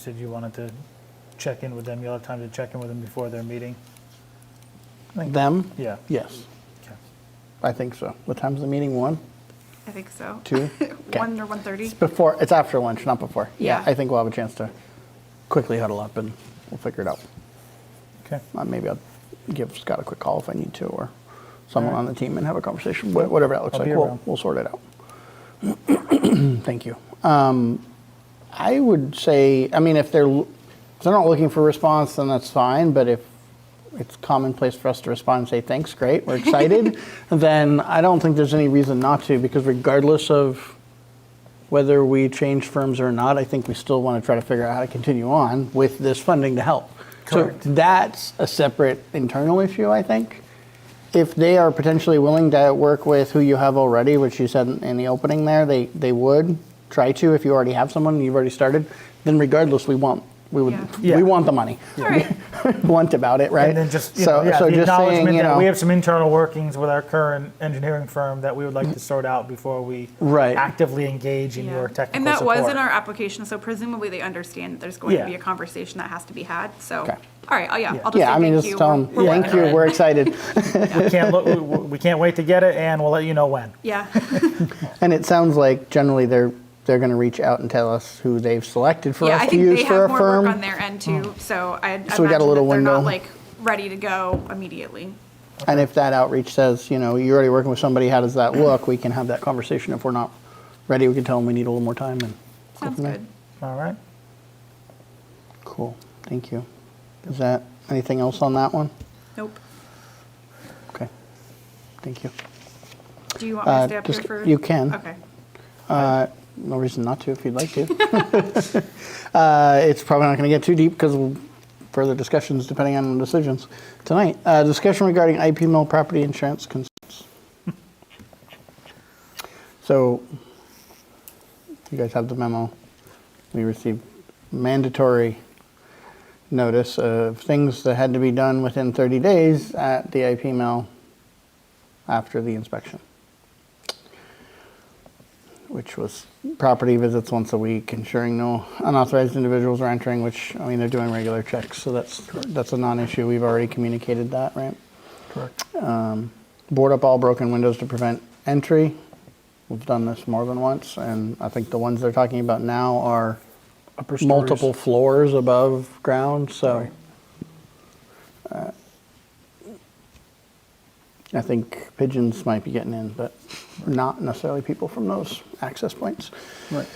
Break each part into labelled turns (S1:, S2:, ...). S1: Said you wanted to check in with them, you'll have time to check in with them before their meeting?
S2: Them?
S1: Yeah,
S2: Yes,
S1: okay.
S2: I think so. What time's the meeting? One,
S3: I think so.
S2: two? Okay.
S3: One or one thirty.
S2: It's before, it's after lunch, not before.
S3: Yeah.
S2: I think we'll have a chance to quickly huddle up and we'll figure it out.
S1: Okay,
S2: Uh, Maybe I'll give Scott a quick call if I need to, or someone
S1: All right.
S2: on the team and have a conversation, Wha- whatever that looks
S1: I'll
S2: like.
S1: be
S2: We'll,
S1: around.
S2: we'll sort it out. Thank you. Um, I would say, I mean, if they're, l- if they're not looking for response, then that's fine, but if it's commonplace for us to respond and say, thanks, great, we're excited, then I don't think there's any reason not to, because regardless of whether we change firms or not, I think we still want to try to figure out how to continue on with this funding to help.
S1: Correct.
S2: So that's a separate internal issue, I think. If they are potentially willing to work with who you have already, which you said in the opening there, they, they would try to if you already have someone and you've already started, then regardless, we want we would
S1: Yeah. Yeah.
S2: we want the money.
S3: All right.
S2: Blunt about it, right?
S1: and then just, you know, yeah, the acknowledgement that we have some internal workings with our current engineering firm that we would like to sort out before we
S2: Right.
S1: actively engage in your technical
S3: And that
S1: support.
S3: was in our application, so presumably they understand that there's going
S1: Yeah.
S3: to be a conversation that has to be had, so.
S2: Okay.
S3: All right, oh, yeah,
S1: Yeah.
S3: I'll just say
S2: yeah, I mean,
S3: thank
S2: just
S3: you.
S2: tell
S3: We're-
S2: them,
S3: we're
S2: thank
S3: working
S2: you,
S3: on it."
S2: we're excited.
S1: We can't, look- we- we can't wait to get it, and we'll let you know when.
S3: Yeah,
S2: And it sounds like generally they're, they're going to reach out and tell us who they've selected for
S3: yeah, I
S2: us to
S3: think
S2: use
S3: they
S2: for a
S3: have more work on
S2: firm. Oh.
S3: their end too, so I I imagine
S2: So we got a
S3: that
S2: little
S3: they're not
S2: window.
S3: like ready to go immediately.
S2: And if that outreach says, you know, you're already working with somebody, how does that look? We can have that conversation. If we're not ready, we can tell them we need a little more time and. go
S3: Sounds
S2: from there.
S3: good.
S1: All right?
S2: Cool, thank you. Is that, anything else on that one?
S3: Nope.
S2: Okay, thank you.
S3: Do you want me
S2: Uh,
S3: to stay up here
S2: just-
S3: for?
S2: you can.
S3: Okay.
S2: Uh, No reason not to if you'd like to. Uh, It's probably not going to get too deep because further discussions depending on decisions tonight. Uh, Discussion regarding IP mill property insurance concerns. So you guys have the memo. We received mandatory notice of things that had to be done within 30 days at the IP mill after the inspection which was property visits once a week, ensuring no unauthorized individuals are entering, which, I mean, they're doing regular checks, so that's, that's a non-issue. We've already communicated that, right?
S1: Correct.
S2: Board up all broken windows to prevent entry. We've done this more than once, and I think the ones they're talking about now are
S4: upper stories.
S2: multiple floors above ground, so. uh, I think pigeons might be getting in, but not necessarily people from those access points.
S4: Right.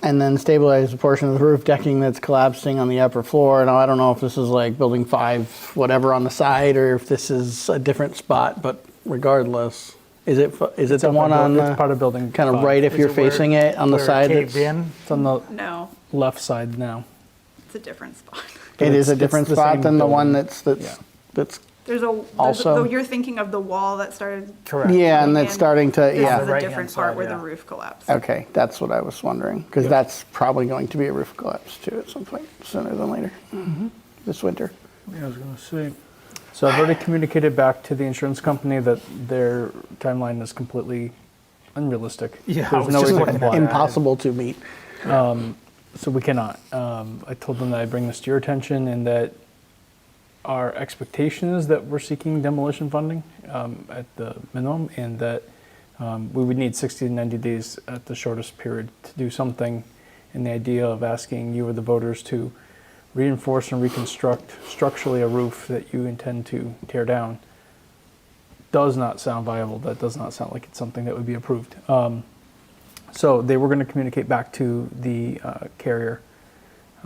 S2: And then stabilize the portion of the roof decking that's collapsing on the upper floor. Now, I don't know if this is like building five, whatever on the side, or if this is a different spot, but regardless, is it, fu- is it the
S4: up
S2: one
S4: on
S2: on
S4: buil- it's
S2: the?
S4: part of building
S2: Kind of
S4: five.
S2: right if
S1: Is
S2: you're
S1: it where-
S2: facing it on the
S1: where it
S2: side that's.
S1: caved in?
S4: It's on the
S3: No,
S4: left side now.
S3: it's a different spot.
S2: It is
S4: It's-
S2: a
S4: it's
S2: different
S4: the
S2: spot
S4: same
S2: than the one
S4: building.
S2: that's, that's,
S4: Yeah.
S2: that's,
S3: There's a, there's, a-
S2: Also-
S3: though you're thinking of the wall that started.
S1: Correct.
S2: yeah, and
S3: coming
S2: it's
S3: in.
S2: starting to,
S3: This is
S2: yeah.
S3: a
S1: right-hand
S3: different
S1: side,
S3: part where the
S1: yeah.
S3: roof collapsed.
S2: Okay, that's what I was wondering, because
S4: Yeah.
S2: that's probably going to be a roof collapse too at some point, sooner than later,
S4: Mm-hmm.
S2: this winter.
S4: Yeah, I was gonna say. So I've already communicated back to the insurance company that their timeline is completely unrealistic.
S1: Yeah, I
S4: There's
S1: was
S4: no
S1: just
S4: way they
S1: looking
S4: can
S1: at
S4: fly.
S1: that.
S2: Impossible to meet.
S4: So we cannot. Um, I told them that I bring this to your attention and that our expectation is that we're seeking demolition funding um, at the minimum and that um, we would need 60 to 90 days at the shortest period to do something. And the idea of asking you or the voters to reinforce and reconstruct structurally a roof that you intend to tear down does not sound viable. That does not sound like it's something that would be approved. Um, so they were going to communicate back to the uh, carrier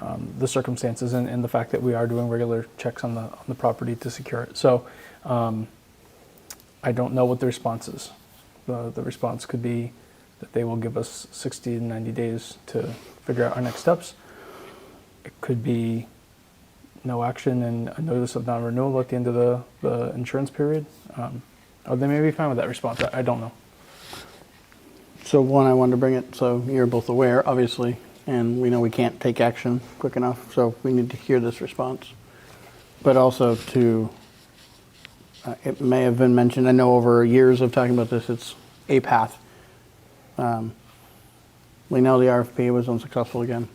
S4: um, the circumstances and, and the fact that we are doing regular checks on the on the property to secure it. So um, I don't know what the response is. The, the response could be that they will give us 60 to 90 days to figure out our next steps. It could be no action and a notice of non-renewal at the end of the, the insurance period. Um, or they may be fine with that response. I, I don't know.
S2: So one, I wanted to bring it, so you're both aware, obviously, and we know we can't take action quick enough, so we need to hear this response. But also to, uh, it may have been mentioned, I know over years of talking about this, it's a path. Um, We know the RFP was unsuccessful again.